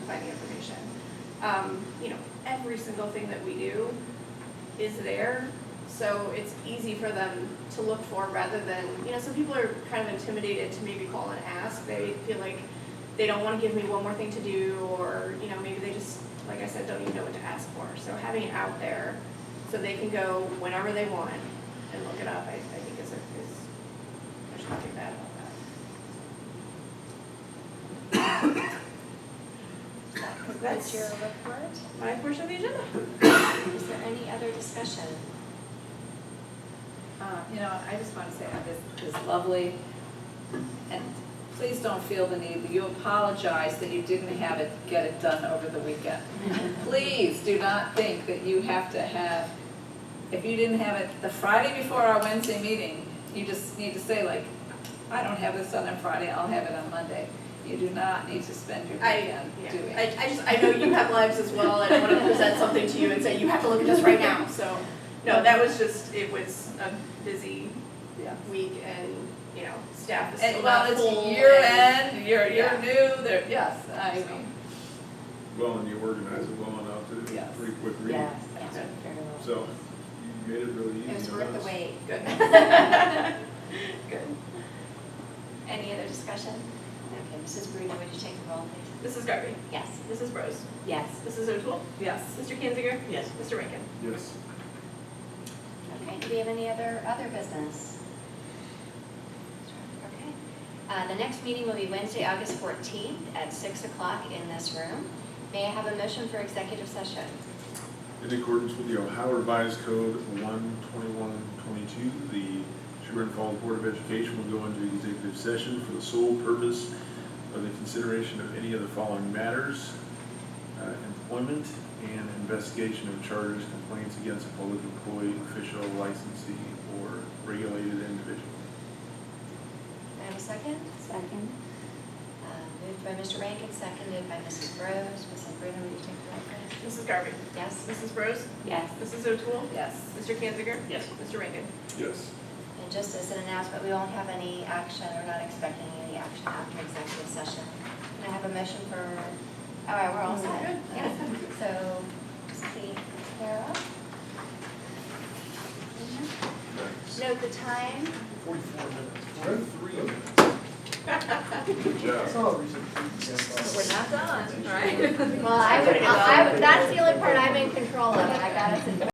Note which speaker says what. Speaker 1: um, you know, every single thing that we do is there. So it's easy for them to look for rather than, you know, some people are kind of intimidated to maybe call and ask. They feel like they don't want to give me one more thing to do or, you know, maybe they just, like I said, don't even know what to ask for. So having it out there so they can go whenever they want and look it up, I, I think is, a- is, there's nothing bad about that.
Speaker 2: That's your report.
Speaker 1: My portion of the agenda.
Speaker 2: Is there any other discussion?
Speaker 3: Uh, You know, I just want to say that this is lovely, and please don't feel the need, that you apologize that you didn't have it, get it done over the weekend. Please do not think that you have to have, if you didn't have it the Friday before our Wednesday meeting, you just need to say like, I don't have this done on Friday, I'll have it on Monday. You do not need to spend your
Speaker 1: I,
Speaker 3: weekend
Speaker 1: yeah,
Speaker 3: doing.
Speaker 1: I, I just, I know you have lives as well, and I wanna present something to you and say, you have to look at this right now, so. No, that was just, it was a busy
Speaker 3: Yeah.
Speaker 1: week and, you know, staff is still
Speaker 3: And
Speaker 1: not
Speaker 3: well,
Speaker 1: full
Speaker 3: it's
Speaker 1: and-
Speaker 3: year end, you're, you're
Speaker 1: Yeah.
Speaker 3: new, there, yes, I
Speaker 1: So.
Speaker 3: mean,
Speaker 4: Well, and you organize it well enough that it was
Speaker 3: Yes.
Speaker 4: a pretty quick read.
Speaker 5: Yes, that's
Speaker 1: Yeah.
Speaker 5: very well.
Speaker 4: So you made it really easy.
Speaker 5: It was
Speaker 4: on
Speaker 5: worth
Speaker 4: us.
Speaker 5: the wait.
Speaker 1: Good. Good.
Speaker 2: Any other discussion? Okay, Mrs. Bruno, would you take the roll, please?
Speaker 1: Mrs. Garvey.
Speaker 2: Yes.
Speaker 1: Mrs. Rose.
Speaker 5: Yes.
Speaker 1: Mrs. O'Toole.
Speaker 3: yes.
Speaker 1: Mr. Kanziger.
Speaker 6: Yes.
Speaker 1: Mr. Rankin.
Speaker 4: Yes.
Speaker 2: Okay, do we have any other, other business? Okay. Uh, The next meeting will be Wednesday, August 14th at 6 o'clock in this room. May I have a motion for executive session?
Speaker 4: In accordance with the Ohio Revised Code one twenty-one twenty-two, the Sherburne Falls Board of Education will go into executive session for the sole purpose of the consideration of any of the following matters. uh, Employment and investigation of charges, complaints against a public employee, official, licensee, or regulated individual.
Speaker 2: May I have a second?
Speaker 5: Second.
Speaker 2: Uh, Moved by Mr. Rankin, seconded by Mrs. Rose. Mrs. Bruno, would you take the roll, please?
Speaker 1: Mrs. Garvey.
Speaker 2: Yes?
Speaker 1: Mrs. Rose.
Speaker 5: Yes.
Speaker 1: Mrs. O'Toole.
Speaker 3: Yes.
Speaker 1: Mr. Kanziger.
Speaker 6: Yes.
Speaker 1: Mr. Rankin.
Speaker 4: Yes.
Speaker 2: And just as an announcement, we won't have any action, we're not expecting any action after executive session. Can I have a motion for, all right, we're all set. Yeah. So, see, Clara? Note the time.
Speaker 7: Forty-four minutes.
Speaker 4: Three of them. Good job.
Speaker 7: That's all recent.
Speaker 3: We're not done, right?
Speaker 2: Well, I would, I would, that's the only part I'm in control of, I got us in